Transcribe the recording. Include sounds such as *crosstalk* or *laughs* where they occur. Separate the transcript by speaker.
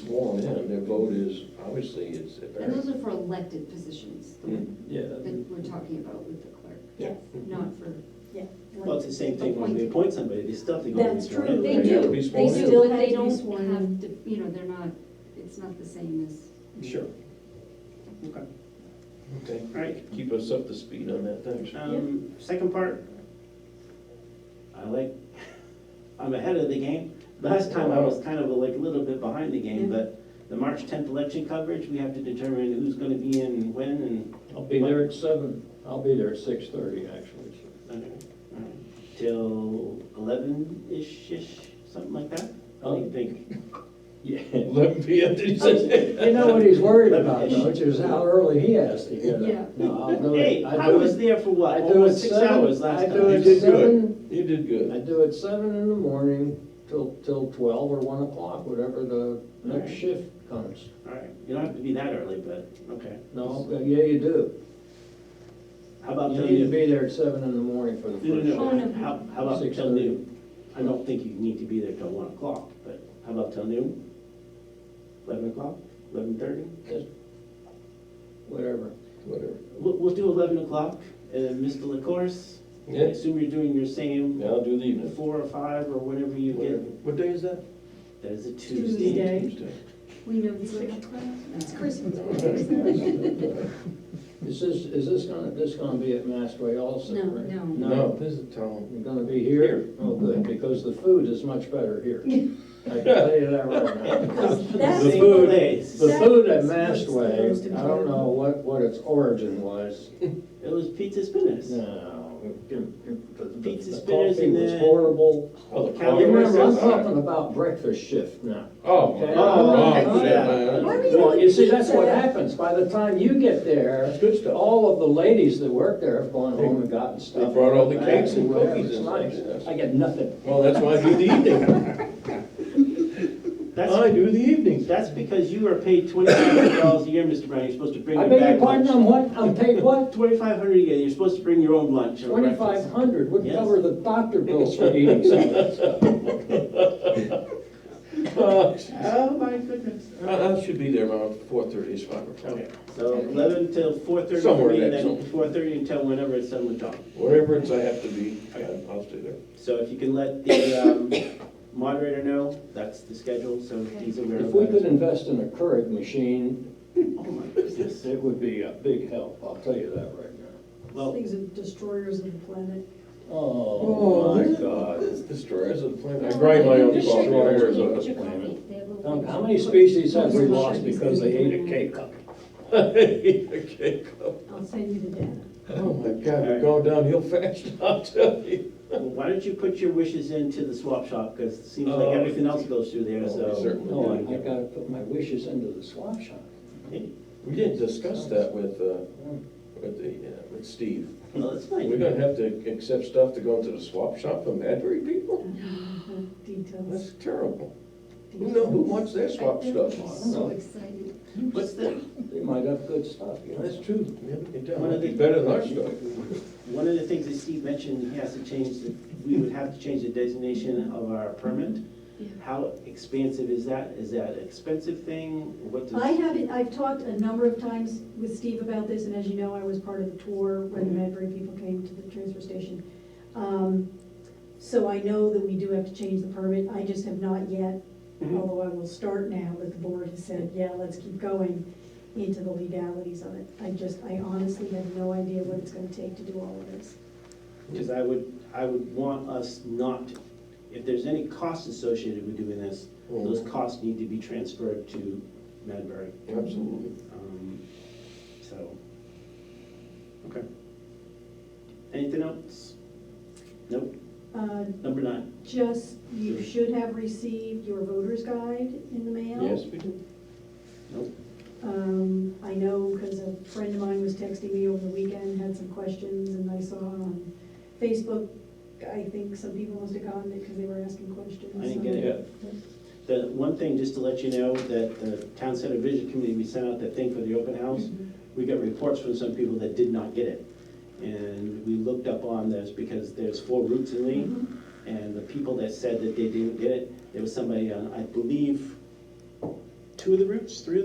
Speaker 1: sworn in, their vote is, obviously, it's
Speaker 2: And
Speaker 1: apparent.
Speaker 2: those are for elected positions, the
Speaker 1: Hmm.
Speaker 2: one
Speaker 3: Yeah,
Speaker 2: that we're talking about with the clerk,
Speaker 4: Yeah.
Speaker 2: not for.
Speaker 3: well, it's the same thing when we
Speaker 2: Appointed.
Speaker 3: appoint somebody, they still have to go. and
Speaker 4: That's
Speaker 3: be sworn
Speaker 4: true.
Speaker 3: in.
Speaker 4: They
Speaker 1: They do.
Speaker 4: do,
Speaker 1: have to be
Speaker 4: they
Speaker 1: sworn in.
Speaker 4: still
Speaker 2: But
Speaker 4: have
Speaker 2: they
Speaker 4: to be
Speaker 2: don't
Speaker 4: sworn in.
Speaker 2: have to, you know, they're not, it's not the same as,
Speaker 3: Mm-hmm. Sure. Okay, all
Speaker 1: Okay.
Speaker 3: right.
Speaker 1: Keep us up to speed on that, thanks.
Speaker 3: Um, second part. I like, I'm ahead of the game. Last time I was kind of like a little bit behind the game, but the March tenth election coverage, we have to determine who's gonna be in when and.
Speaker 5: I'll be there at seven, I'll be there at six thirty, actually.
Speaker 3: Okay, all right. uh, Till eleven-ish-ish, something like that? What do you think?
Speaker 5: Yeah.
Speaker 1: Eleven P M, *laughs* did you say?
Speaker 5: You know what he's worried about, which is how early he has to get
Speaker 2: Yeah.
Speaker 5: up. No, I'll do it-
Speaker 3: Hey,
Speaker 5: I
Speaker 3: I
Speaker 5: do
Speaker 3: was
Speaker 5: it-
Speaker 3: there for
Speaker 5: I
Speaker 3: what,
Speaker 5: do it
Speaker 3: almost six
Speaker 5: seven-
Speaker 3: hours last
Speaker 5: I do
Speaker 1: You
Speaker 5: it
Speaker 3: time?
Speaker 1: did
Speaker 5: seven.
Speaker 1: good, you did
Speaker 5: I
Speaker 1: good.
Speaker 5: do it seven in the morning till, till twelve or one o'clock, whatever the next
Speaker 3: Right.
Speaker 5: shift comes.
Speaker 3: All right, you don't have to be that early, but, okay.
Speaker 5: No, yeah, you do.
Speaker 3: How about
Speaker 5: You
Speaker 3: till
Speaker 5: need to
Speaker 3: noon?
Speaker 5: be there at seven in the morning for the
Speaker 3: No,
Speaker 5: first
Speaker 3: no,
Speaker 2: Oh,
Speaker 5: shift.
Speaker 3: no,
Speaker 2: no.
Speaker 3: how, how about
Speaker 5: Six
Speaker 3: till
Speaker 5: thirty.
Speaker 3: noon? I don't think you need to be there till one o'clock, but how about till noon? Eleven o'clock, eleven thirty?
Speaker 5: Whatever.
Speaker 1: Whatever.
Speaker 3: We'll, we'll do eleven o'clock, and then Mr. LaCourse, I
Speaker 1: Yeah,
Speaker 3: assume you're doing your same
Speaker 1: yeah, I'll do the evening.
Speaker 3: four or five or whatever you
Speaker 1: Whatever.
Speaker 3: get.
Speaker 1: What day is that?
Speaker 3: That is a
Speaker 4: Tuesday.
Speaker 3: Tuesday.
Speaker 4: Okay.
Speaker 1: Tuesday.
Speaker 2: we know these are. It's
Speaker 5: Is this, is this gonna, this gonna be at Mastway also?
Speaker 2: No,
Speaker 5: right?
Speaker 2: no.
Speaker 1: No, this is town.
Speaker 5: You're gonna be here?
Speaker 1: Here.
Speaker 5: Oh, good, because the food is much better
Speaker 4: *laughs*
Speaker 5: here. I can tell you that
Speaker 3: *laughs*
Speaker 5: right now.
Speaker 4: That's
Speaker 3: The
Speaker 5: The
Speaker 3: food
Speaker 5: food-
Speaker 3: days.
Speaker 5: The food at
Speaker 4: That's
Speaker 5: Mastway,
Speaker 4: what's the most
Speaker 5: I don't know what, what its origin was.
Speaker 3: It was pizza spinners.
Speaker 5: No. the- the-
Speaker 3: Pizza
Speaker 5: the
Speaker 3: spinners and
Speaker 5: Coffee was
Speaker 3: then-
Speaker 5: horrible.
Speaker 1: Oh, the
Speaker 3: Calendar.
Speaker 5: You Remember, I'm
Speaker 1: conference.
Speaker 5: talking about breakfast shift now.
Speaker 1: Oh,
Speaker 5: Okay.
Speaker 1: oh, shit, man.
Speaker 4: Why were you
Speaker 5: Well,
Speaker 4: doing
Speaker 5: you see, that's
Speaker 4: pizza?
Speaker 5: what happens. By the time you get there,
Speaker 1: Good stuff.
Speaker 5: all of the ladies that work there have gone home and gotten stuff.
Speaker 1: They brought all the
Speaker 5: back
Speaker 1: cakes and
Speaker 5: whatever.
Speaker 1: cookies
Speaker 5: It's
Speaker 1: and
Speaker 5: nice.
Speaker 1: stuff.
Speaker 5: I get nothing.
Speaker 1: Well, that's why I do the evening. I
Speaker 3: That's,
Speaker 1: do the *laughs* evenings.
Speaker 3: that's because you are paid twenty-five hundred dollars a year, Mr. Brown, you're supposed to bring
Speaker 5: I
Speaker 3: your
Speaker 5: beg your
Speaker 3: back
Speaker 5: pardon, I'm
Speaker 3: lunch.
Speaker 5: what, I'm paid
Speaker 1: *laughs*
Speaker 5: what?
Speaker 3: Twenty-five hundred a year, you're supposed to bring your own lunch or breakfast.
Speaker 5: Twenty-five hundred would
Speaker 3: Yes.
Speaker 5: cover the doctor bills for eating something. *laughs*
Speaker 1: Uh,
Speaker 3: Oh, my goodness.
Speaker 1: I I should be there around four thirty, it's five o'clock.
Speaker 3: Okay, so eleven till four thirty for
Speaker 1: Somewhere
Speaker 3: me,
Speaker 1: in
Speaker 3: and
Speaker 1: that
Speaker 3: then
Speaker 1: zone.
Speaker 3: four thirty until whenever it's done with John.
Speaker 1: Whatever it's I have to be, I- I'll stay there.
Speaker 3: So if you can let the
Speaker 1: *coughs*
Speaker 3: um, moderator know, that's the schedule, so he's aware of
Speaker 5: If
Speaker 3: that.
Speaker 5: we could invest in a Keurig machine,
Speaker 3: Oh, my goodness.
Speaker 5: it would be a big help, I'll tell you that right now.
Speaker 3: Well,
Speaker 4: Things are destroyers of the planet.
Speaker 5: Oh, my God.
Speaker 1: This destroys the planet. I grind my own destroyers
Speaker 5: Destroyers of
Speaker 1: on
Speaker 5: the
Speaker 1: the
Speaker 5: planet. Um,
Speaker 2: planet.
Speaker 5: How many species have we lost because they ate a K-cup?
Speaker 1: planet. *laughs* Okay.
Speaker 4: I'll send you the data.
Speaker 1: Oh my God, we're going downhill fast, *laughs* I'll tell you.
Speaker 3: why don't you put your wishes into the swap shop, because it seems like
Speaker 1: Oh.
Speaker 3: everything else goes through there,
Speaker 1: Oh,
Speaker 3: so.
Speaker 1: certainly
Speaker 5: No, I I gotta put my wishes into the swap shop.
Speaker 3: Hey,
Speaker 1: We didn't discuss that with, uh, with the, uh, with Steve.
Speaker 3: Well, that's
Speaker 1: We're
Speaker 3: fine.
Speaker 1: gonna have to accept stuff to go into the swap shop from Madbury people?
Speaker 4: Details.
Speaker 1: That's terrible. Who know, who wants their swap stuff?
Speaker 2: So excited.
Speaker 3: What's the,
Speaker 5: They might have good stuff, you know.
Speaker 1: That's true, yeah, we can tell.
Speaker 3: One of the-
Speaker 1: It's better than our stuff.
Speaker 3: one of the things that Steve mentioned, he has to change, the we would have to change the designation of our permit.
Speaker 2: Yeah.
Speaker 3: How expansive is that? Is that an expensive thing? What does?
Speaker 4: I haven't, I've talked a number of times with Steve about this, and as you know, I was part of the tour when the
Speaker 1: Mm-hmm.
Speaker 4: Madbury people came to the transfer station. Um, So I know that we do have to change the permit, I just have not yet,
Speaker 1: Mm-hmm.
Speaker 3: Mhm.
Speaker 4: although I will start now that the board has said, yeah, let's keep going into the legalities of it. I just, I honestly have no idea what it's gonna take to do all of this.
Speaker 3: Because I would, I would want us not, to- if there's any costs associated with doing this,
Speaker 1: Oh,
Speaker 3: those costs need to be transferred to Madbury.
Speaker 1: Absolutely.
Speaker 3: Um, So, okay. Anything else? Nope,
Speaker 4: Uh,
Speaker 3: number nine.
Speaker 4: Just, you should have received your voter's guide in the mail.
Speaker 1: Yes, we do.
Speaker 4: Um, I know because a friend of mine was texting me over the weekend, had some questions, and I saw on Facebook, I think some people must have gotten it because they were asking questions.
Speaker 3: I didn't get it. The one thing, just to let you know, that the Town Center Vision Committee, we sent out that thing for the open house. We got reports from some people that did not get it. And we looked up on this because there's four routes in Lee.
Speaker 4: Mhm.
Speaker 3: And the people that said that they didn't get it, there was somebody on, I believe, uh, two of the routes, three of the